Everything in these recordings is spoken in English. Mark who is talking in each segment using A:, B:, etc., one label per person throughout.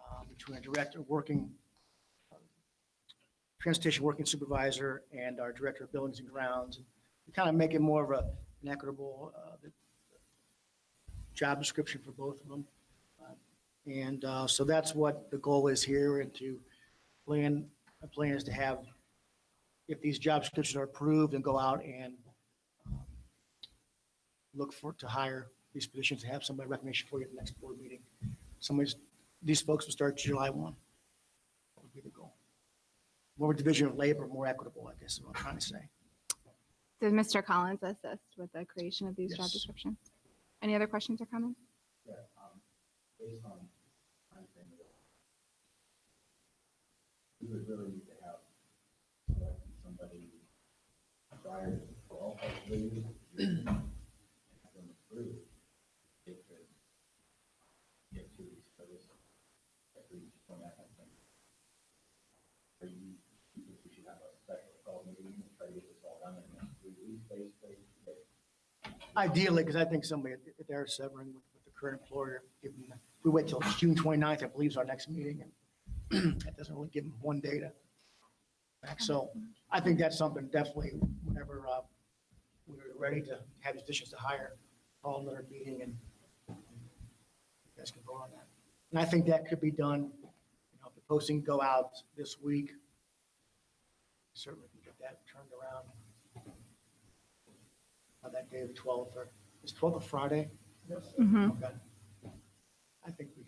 A: um, between our director of working, um, transportation working supervisor and our director of buildings and grounds. To Kind of make it more of a, an equitable, uh, job description for both of them. Uh, And, uh, so that's what the goal is here and to plan, the plan is to have, if these job descriptions are approved and go out and um, look for, to hire these positions, have somebody recommendation for you at the next board meeting. Somebody's, these folks will start July one. That would be the goal. More division of labor, more equitable, I guess is what I'm trying to say.
B: Did Mr. Collins assist with the creation of these job
A: Yes.
B: descriptions? Any other questions or comments?
C: Yeah, um, based on my understanding of it, we would really need to have select somebody prior to the fall, hopefully, and have them approve. They could get two weeks notice, at least from that, I think. Or you, you think we should have a special call meeting and try to get this all done in the next three weeks, basically, but
A: Ideally, because I think somebody, if they're severing with with the current employer, give them, we wait till June 29th, I believe is our next meeting. and That doesn't really give them one day to. back. So I think that's something definitely whenever uh, we're ready to have decisions to hire, call another meeting and you guys can vote on that. And I think that could be done, you know, if the posting go out this week, certainly can get that turned around on that day, the 12th, or is 12th a Friday?
B: Mhm.
A: Okay. I think we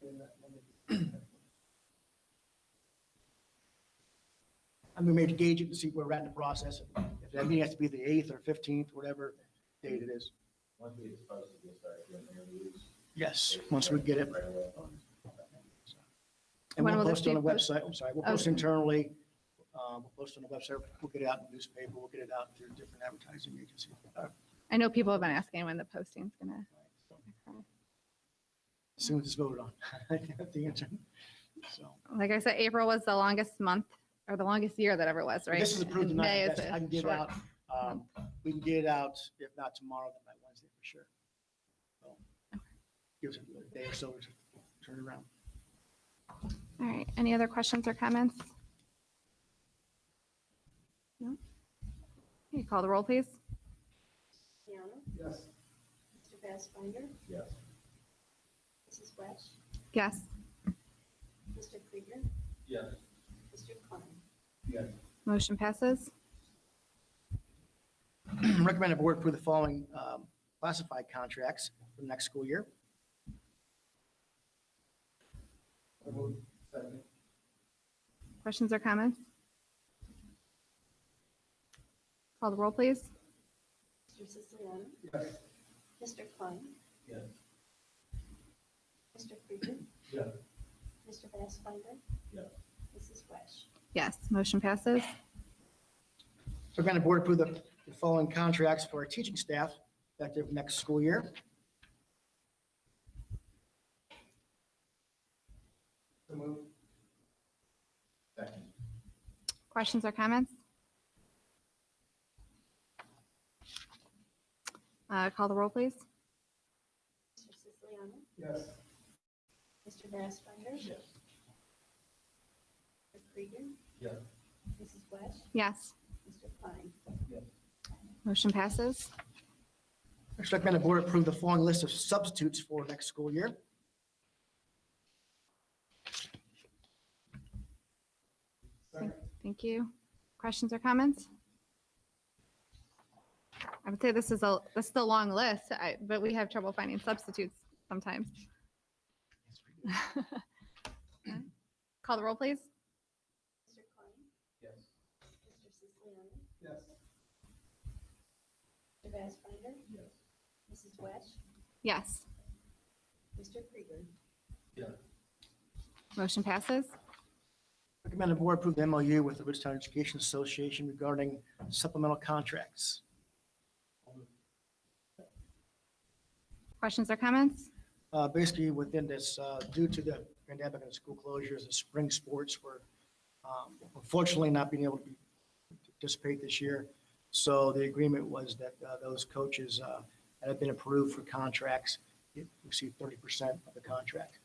A: should. I'm gonna maybe gauge it and see where we're at in the process. If that meeting has to be the 8th or 15th, whatever date it is.
C: once we dispose of this, start doing interviews.
A: Yes, once we get it.
C: Right away.
A: And
B: When
A: we'll
B: will this
A: post it on the
B: be posted?
A: website, I'm sorry, we'll post
B: Okay.
A: internally, uh, we'll post on the website, we'll get it out in the newspaper, we'll get it out through different advertising agencies. Uh,
B: I know people have been asking when the posting's gonna. occur.
A: As soon as it's voted on, I have the answer. So,
B: Like I said, April was the longest month or the longest year that ever was, right?
A: this is approved
B: And May
A: tonight,
B: is
A: That's- I
B: a
A: can get it
B: short-
A: out, um, we can get it out, if not tomorrow, then by Wednesday for sure. So, Give us a day or so to turn it around.
B: All right, any other questions or comments? No? Okay, call the roll, please.
D: Piano,
C: Yes.
D: Mr. Bassfider,
C: Yes.
D: Mrs. Welch,
B: Yes.
D: Mr. Krieger,
C: Yes.
D: Mr. Klein.
C: Yes.
B: Motion passes.
A: Recommended board approve the following um, classified contracts for the next school year.
C: Second.
B: Questions or comments? Call the roll, please.
D: Mr. Siciliano,
C: Yes.
D: Mr. Klein,
C: Yes.
D: Mr. Krieger,
C: Yes.
D: Mr. Bassfider,
C: Yes.
D: Mrs. Welch,
B: Yes, motion passes.
A: Recommended board approve the the following contracts for our teaching staff effective next school year.
C: So move. Second.
B: Questions or comments? Uh, Call the roll, please.
D: Mr. Siciliano,
C: Yes.
D: Mr. Bassfider,
C: Yes.
D: Mr. Krieger,
C: Yes.
D: Mrs. Welch,
B: Yes,
D: Mr. Klein.
B: motion passes.
A: Next, recommended board approve the following list of substitutes for next school year.
B: Thank- Thank you. Questions or comments? I would say this is a, this is a long list, I- but we have trouble finding substitutes sometimes. Call the roll, please.
D: Mr. Klein,
C: Yes.
D: Mr. Siciliano,
C: Yes.
D: Mr. Bassfider,
C: Yes.
D: Mrs. Welch,
B: Yes,
D: Mr. Krieger,
C: Yes.
B: motion passes.
A: Recommended board approve the MOU with the Ridgetown Education Association regarding supplemental contracts.
B: Questions or comments?
A: Uh, Basically, within this, uh, due to the pandemic and school closures, the spring sports were um, unfortunately not being able to be- participate this year. So the agreement was that uh, those coaches uh, that have been approved for contracts, receive 30% of the contract.